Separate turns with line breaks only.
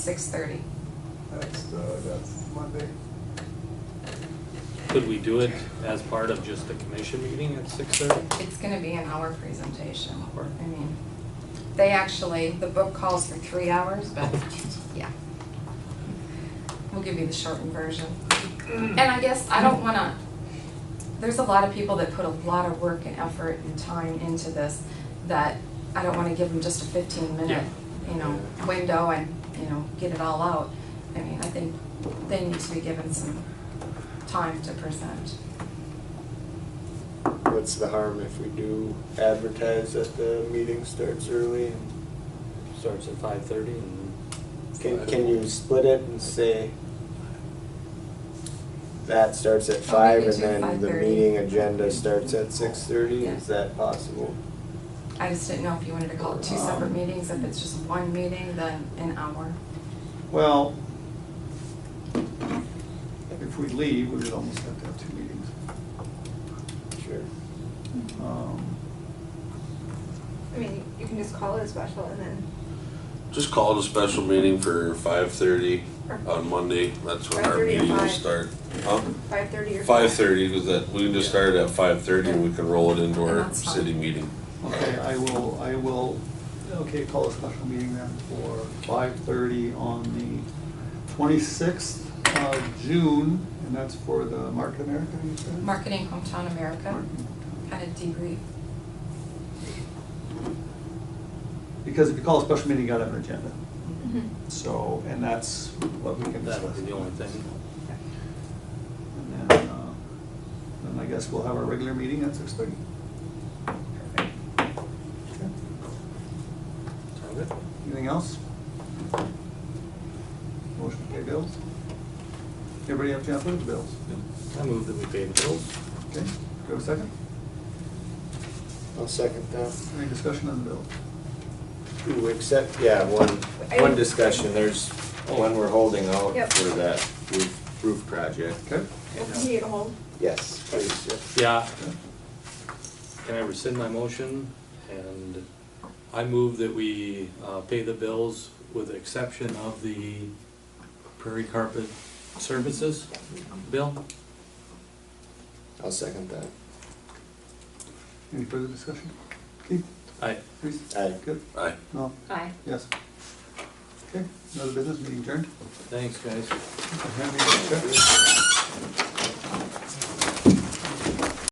six thirty.
That's, uh, that's Monday.
Could we do it as part of just the commission meeting at six thirty?
It's gonna be an hour presentation.
Hour.
I mean, they actually, the book calls for three hours, but, yeah. We'll give you the shortened version. And I guess I don't wanna, there's a lot of people that put a lot of work and effort and time into this that I don't wanna give them just a fifteen minute, you know, window and, you know, get it all out. I mean, I think they need to be given some time to present.
What's the harm if we do advertise that the meeting starts early? and
Starts at five thirty and.
Can, can you split it and say that starts at five
maybe do
and then the
5:30.
meeting agenda starts at six thirty?
Yeah.
Is that possible?
I just didn't know if you wanted to call it two
Um,
separate meetings, if it's just one meeting, then an hour.
Well, if we leave, we would almost have to have two meetings.
Sure.
Um,
I mean, you can just call it a special and then,
Just call it a special meeting for five thirty on Monday, that's when our
5:30 or
meeting will
5?
start. Huh?
five thirty or.
Five thirty, because that, we can just start at five thirty and we can roll it into
And
our
that's fine.
city meeting.
Okay, I will, I will, okay, call a special meeting then for five thirty on the twenty-sixth of June, and that's for the Market America, you
Mm-hmm.
said?
Marketing Hometown America,
Market.
kind of debrief.
Because if you call a special meeting, you gotta have an agenda,
Mhm.
so, and that's what we can
That
discuss.
would be the only thing.
And then, uh, then I guess we'll have our regular meeting at six thirty.
Sound good?
Anything else? Motion to pay bills? Everybody have a chance to look at the bills?
I move that we pay the bills.
Okay, do we have a second?
I'll second that.
Any discussion on the bill?
Ooh, except, yeah, one,
I-
one discussion, there's one we're holding out
Yep.
for that roof, roof project.
Okay?
Well, can you get a hold?
Yes, please, Jeff.
Yeah,
Okay.
can I rescind my motion? And I move that we, uh, pay the bills with the exception of the Prairie Carpet Services bill.
I'll second that.
Any further discussion? Keith,
I,
please.
Aye.
Good,
Aye.
no,
Aye.
yes. Okay, another business meeting adjourned.
thanks, guys.
Hand me the check.